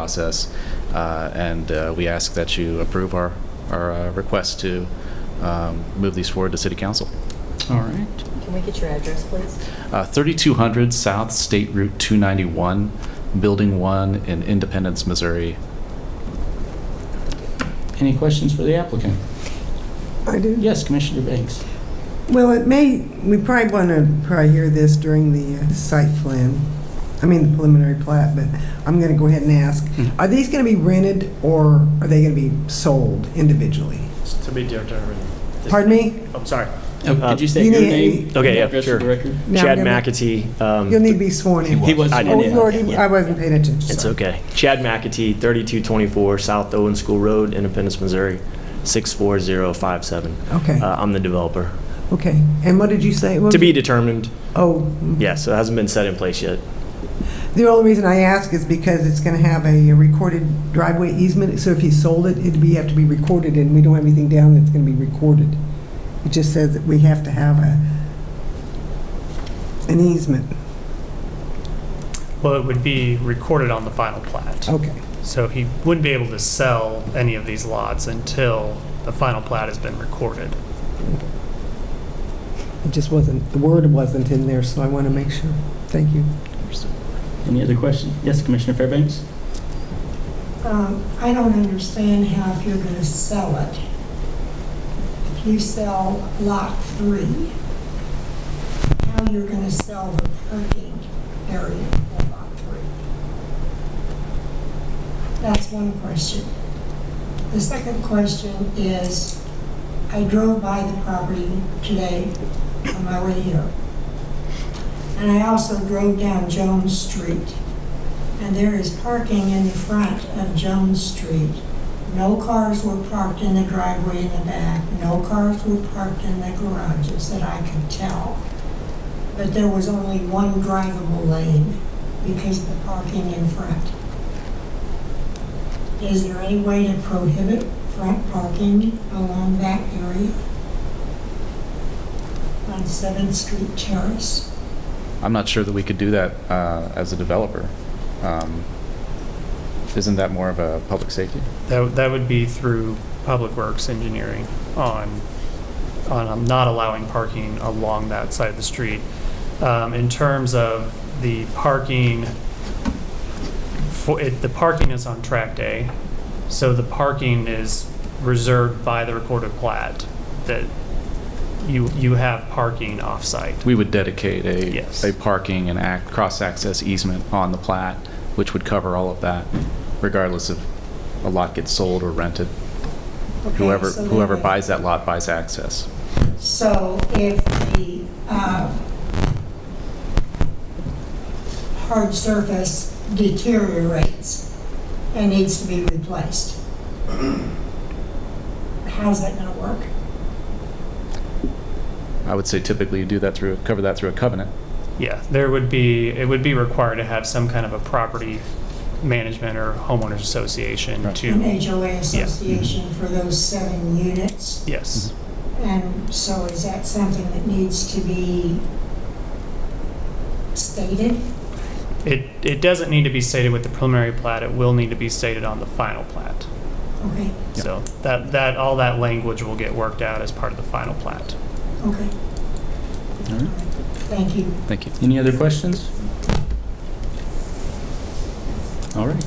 process, uh, and uh, we ask that you approve our, our uh, request to um, move these forward to City Council. All right. Can we get your address, please? Uh, 3200 South State Route 291, Building 1 in Independence, Missouri. Any questions for the applicant? I do. Yes, Commissioner Banks. Well, it may, we probably want to probably hear this during the uh, site plan, I mean, the preliminary plat, but I'm going to go ahead and ask, are these going to be rented or are they going to be sold individually? To be determined. Pardon me? I'm sorry. Oh, Uh, Could you say you your need- name? Okay, and yeah, address for sure. the record? Now Chad I'm gonna- McAtee. um, You'll need to be sworn in. He was. I did, Oh, yeah. you already, I wasn't paying attention. It's sorry. okay. Chad McAtee, 3224 South Owen School Road, Independence, Missouri, 64057. Okay, Uh, I'm the developer. okay. And what did you say? What To was- be determined, Oh, yeah, so it hasn't been set in place yet. the only reason I ask is because it's going to have a recorded driveway easement, so if he sold it, it'd be, have to be recorded, and we don't have anything down that's going to be recorded. It just says that we have to have a, an easement. Well, it would be recorded on the final plat. Okay, So he wouldn't be able to sell any of these lots until the final plat has been recorded. it just wasn't, the word wasn't in there, so I want to make sure. Thank you. Any other questions? Yes, Commissioner Fairbanks? Um, I don't understand how if you're going to sell it. If you sell Lot 3, how you're going to sell the parking area for Lot 3? That's one question. The second question is, I drove by the property today on my way here. And I also drove down Jones Street and there is parking in the front of Jones Street. No cars were parked in the driveway in the back, no cars were parked in the garages that I could tell. But there was only one drivable lane because of the parking in front. Is there any way to prohibit front parking along that area? On Seventh Street Terrace? I'm not sure that we could do that uh, as a developer. Um, Isn't that more of a public safety? That, that would be through Public Works Engineering on, on um, not allowing parking along that side of the street. Um, in terms of the parking, for, it, the parking is on track day, so the parking is reserved by the recorded plat, that you, you have parking off-site. We would dedicate a, Yes. a parking and act, cross-access easement on the plat, which would cover all of that, regardless of a lot gets sold or rented. Okay, Whoever, so whoever then- buys that lot buys access. So if the uh, hard surface deteriorates and needs to be replaced, how's that going to work? I would say typically you do that through, cover that through a covenant. Yeah, there would be, it would be required to have some kind of a property management or homeowners association Right. An to, HOA association for those seven units? yes. And so is that something that needs to be stated? It, it doesn't need to be stated with the preliminary plat, it will need to be stated on the final plat. Okay, So that, that, all that language will get worked out as part of the final plat. okay. All right. Thank you. Thank you. Any other questions? All right.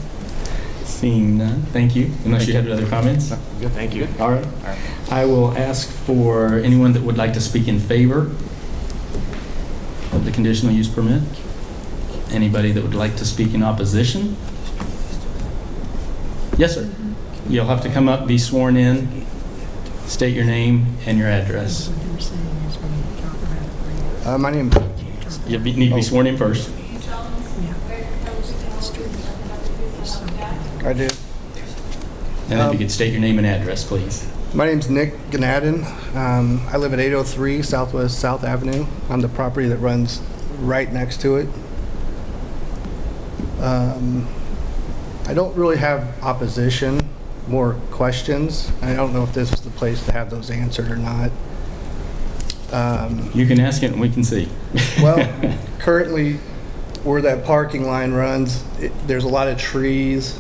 Seeing none, thank you. Unless you had other comments? Thank you. All right. I will ask for anyone that would like to speak in favor of the conditional use permit. Anybody that would like to speak in opposition? Yes, sir. You'll have to come up, be sworn in, state your name and your address. Uh, my name, You be- need to be sworn in first. I do. And if you could state your name and address, please. My name's Nick Ganadin. Um, I live at 803 Southwest South Avenue on the property that runs right next to it. Um, I don't really have opposition, more questions. I don't know if this is the place to have those answered or not. Um, You can ask it and we can see. Well, currently, where that parking line runs, it- there's a lot of trees